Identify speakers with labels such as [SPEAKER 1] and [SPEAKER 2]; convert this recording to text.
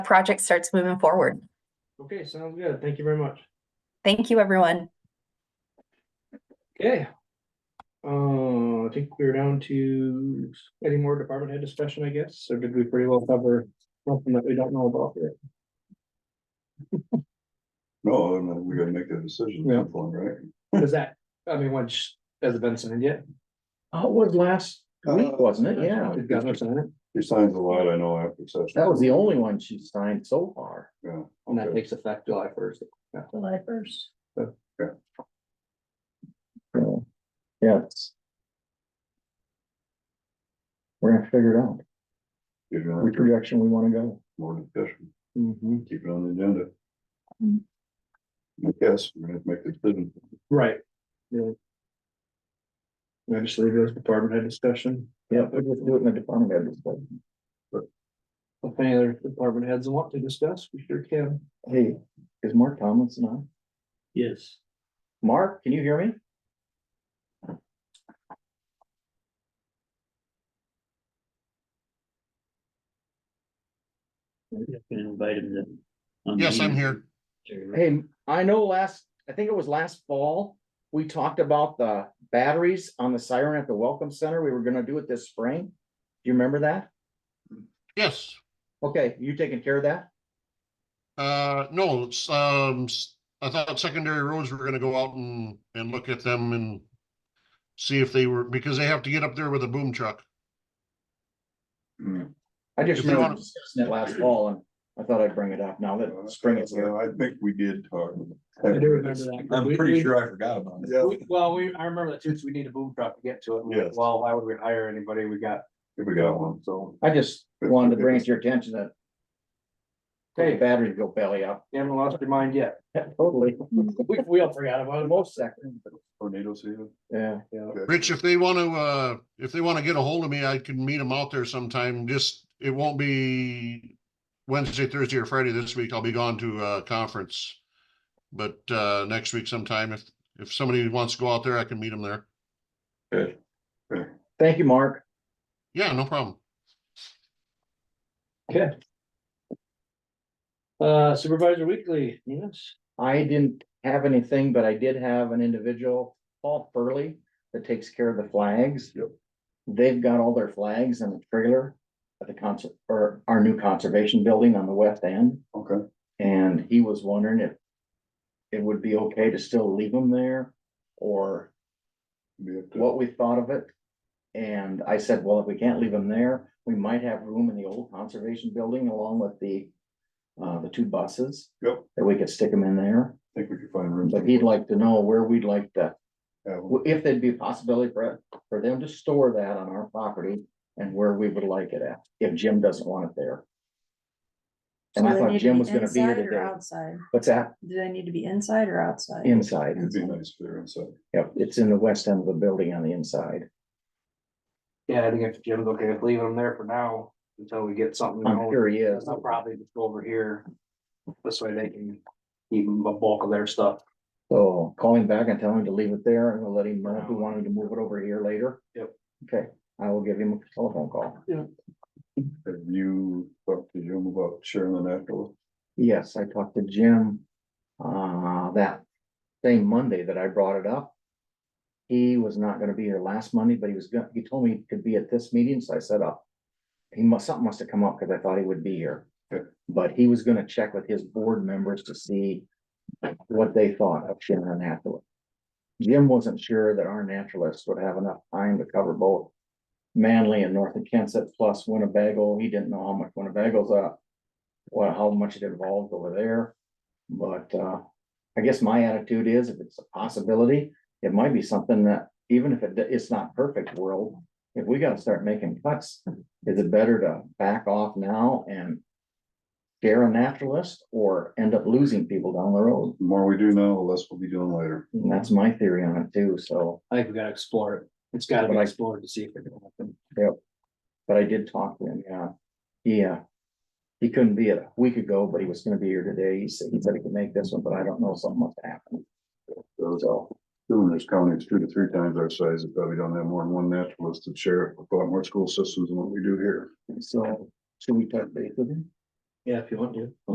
[SPEAKER 1] project starts moving forward.
[SPEAKER 2] Okay, sounds good. Thank you very much.
[SPEAKER 1] Thank you, everyone.
[SPEAKER 2] Okay. Uh, I think we're down to any more department head discussion, I guess, or did we pretty well cover something that we don't know about here?
[SPEAKER 3] No, I mean, we gotta make that decision,
[SPEAKER 2] Yeah.
[SPEAKER 3] at some point, right?
[SPEAKER 2] Is that, I mean, once, has it been signed yet?
[SPEAKER 4] Oh, it was last week,
[SPEAKER 3] Uh,
[SPEAKER 4] wasn't it? Yeah,
[SPEAKER 2] It got no sign in
[SPEAKER 3] He signs a lot, I know, after such.
[SPEAKER 4] that was the only one she signed so far.
[SPEAKER 3] Yeah.
[SPEAKER 2] and that
[SPEAKER 3] okay.
[SPEAKER 2] takes effect July first.
[SPEAKER 4] July first.
[SPEAKER 3] Yeah.
[SPEAKER 4] Yes. We're gonna figure it out,
[SPEAKER 3] You're gonna
[SPEAKER 4] which
[SPEAKER 3] have to-
[SPEAKER 4] direction we wanna go.
[SPEAKER 3] More discussion,
[SPEAKER 2] Mhm.
[SPEAKER 3] keep it on the agenda.
[SPEAKER 1] Mm.
[SPEAKER 3] I guess we're gonna have to make the decision.
[SPEAKER 2] Right. Yeah. I just leave it as department head discussion.
[SPEAKER 4] Yeah, we'll just do it in the department head discussion.
[SPEAKER 2] If any other department heads want to discuss, we sure can.
[SPEAKER 4] Hey, is Mark Tomlinson on?
[SPEAKER 2] Yes.
[SPEAKER 4] Mark, can you hear me?
[SPEAKER 5] Maybe I can invite him to. on the
[SPEAKER 6] Yes, I'm
[SPEAKER 5] meeting.
[SPEAKER 6] here.
[SPEAKER 4] Hey, I know last, I think it was last fall, we talked about the batteries on the siren at the Welcome Center. We were gonna do it this spring. Do you remember that?
[SPEAKER 6] Yes,
[SPEAKER 4] Okay, you taking care of that?
[SPEAKER 6] uh, no, it's, um, s- I thought secondary roads were gonna go out and, and look at them and see if they were, because they have to get up there with a boom truck.
[SPEAKER 3] Mm.
[SPEAKER 4] I just
[SPEAKER 6] If you
[SPEAKER 4] remember
[SPEAKER 6] wanna-
[SPEAKER 4] discussing it last fall and I thought I'd bring it up now that spring is here.
[SPEAKER 3] Yeah, I think we did talk.
[SPEAKER 2] I do remember that.
[SPEAKER 7] I'm
[SPEAKER 2] We-
[SPEAKER 7] pretty
[SPEAKER 2] we-
[SPEAKER 7] sure I forgot about it.
[SPEAKER 3] Yeah,
[SPEAKER 2] We- Well, we, I remember that too, so we need a boom truck to get to it. and we're like,
[SPEAKER 3] Yes.
[SPEAKER 2] Well, why would we hire anybody? We got,
[SPEAKER 3] if we got one,
[SPEAKER 2] so,
[SPEAKER 4] I just wanted to bring it to your attention that the
[SPEAKER 2] hey,
[SPEAKER 4] batteries go belly up.
[SPEAKER 2] you haven't lost your mind yet.
[SPEAKER 4] Totally.
[SPEAKER 2] We, we all forgot about
[SPEAKER 4] For
[SPEAKER 2] it.
[SPEAKER 4] most seconds.
[SPEAKER 3] tornado season.
[SPEAKER 4] Yeah,
[SPEAKER 2] Yeah.
[SPEAKER 6] Rich, if they wanna, uh, if they wanna get a hold of me, I can meet them out there sometime, just, it won't be Wednesday, Thursday, or Friday this week, I'll be gone to a conference. But, uh, next week sometime, if, if somebody wants to go out there, I can meet them there.
[SPEAKER 4] thank you, Mark.
[SPEAKER 6] Yeah, no problem.
[SPEAKER 2] Uh, Supervisor Weekly, yes.
[SPEAKER 4] I didn't have anything, but I did have an individual, Paul Furley, that takes care of the flags.
[SPEAKER 3] Yep.
[SPEAKER 4] They've got all their flags in the trailer at the concert, or our new conservation building on the west end.
[SPEAKER 3] Okay,
[SPEAKER 4] And he was wondering if it would be okay to still leave them there or
[SPEAKER 3] we have to-
[SPEAKER 4] what we thought of it. And I said, well, if we can't leave them there, we might have room in the old conservation building along with the uh, the two buses
[SPEAKER 3] Yep,
[SPEAKER 4] that we could stick them in there.
[SPEAKER 3] I think we could find room.
[SPEAKER 4] But he'd like to know where we'd like to,
[SPEAKER 3] Yeah, well,
[SPEAKER 4] if there'd be a possibility for for them to store that on our property and where we would like it at, if Jim doesn't want it there. And I
[SPEAKER 8] So they
[SPEAKER 4] thought
[SPEAKER 8] need to
[SPEAKER 4] Jim was gonna be here
[SPEAKER 8] inside or
[SPEAKER 4] today.
[SPEAKER 8] Outside,
[SPEAKER 4] What's that?
[SPEAKER 8] do they need to be inside or outside?
[SPEAKER 4] Inside.
[SPEAKER 3] It'd be nice if they're inside.
[SPEAKER 4] Yep, it's in the west end of the building on the inside.
[SPEAKER 2] Yeah, I think if Jim's okay with leaving them there for now, until we get something
[SPEAKER 4] I'm
[SPEAKER 2] going,
[SPEAKER 4] sure he is.
[SPEAKER 2] I'll probably just go over here. This way they can keep the bulk of their stuff.
[SPEAKER 4] So call him back and tell him to leave it there and we'll let him know if we want him to move it over here later.
[SPEAKER 2] Yep.
[SPEAKER 4] Okay, I will give him a telephone call.
[SPEAKER 3] Have you talked to Jim about sharing the natural?
[SPEAKER 4] Yes, I talked to Jim, uh, that same Monday that I brought it up. He was not gonna be here last Monday, but he was gonna, he told me he could be at this meeting, so I said, oh. He must, something must have come up, cause I thought he would be here.
[SPEAKER 3] Good.
[SPEAKER 4] But he was gonna check with his board members to see what they thought of sharing a naturalist. Jim wasn't sure that our naturalists would have enough time to cover both Manly and North of Kansas plus Winnebago. He didn't know how much Winnebago's up well, how much it involved over there. But uh, I guess my attitude is if it's a possibility, it might be something that even if it, it's not perfect world. If we gotta start making cuts, is it better to back off now and scare a naturalist or end up losing people down the road?
[SPEAKER 3] The more we do now, the less we'll be doing later.
[SPEAKER 4] And that's my theory on it too, so,
[SPEAKER 2] I think we gotta explore it. It's gotta be
[SPEAKER 4] But I-
[SPEAKER 2] explored to see if it can happen.
[SPEAKER 4] but I did talk to him, yeah. He uh he couldn't be it a week ago, but he was gonna be here today. He said, he said he could make this one, but I don't know, something must happen.
[SPEAKER 3] Those
[SPEAKER 4] So.
[SPEAKER 3] Doing this county, it's two to three times our size, it probably don't have more than one naturalist to share a lot more school systems than what we do here.
[SPEAKER 4] So should we touch base with him?
[SPEAKER 2] Yeah, if you want to.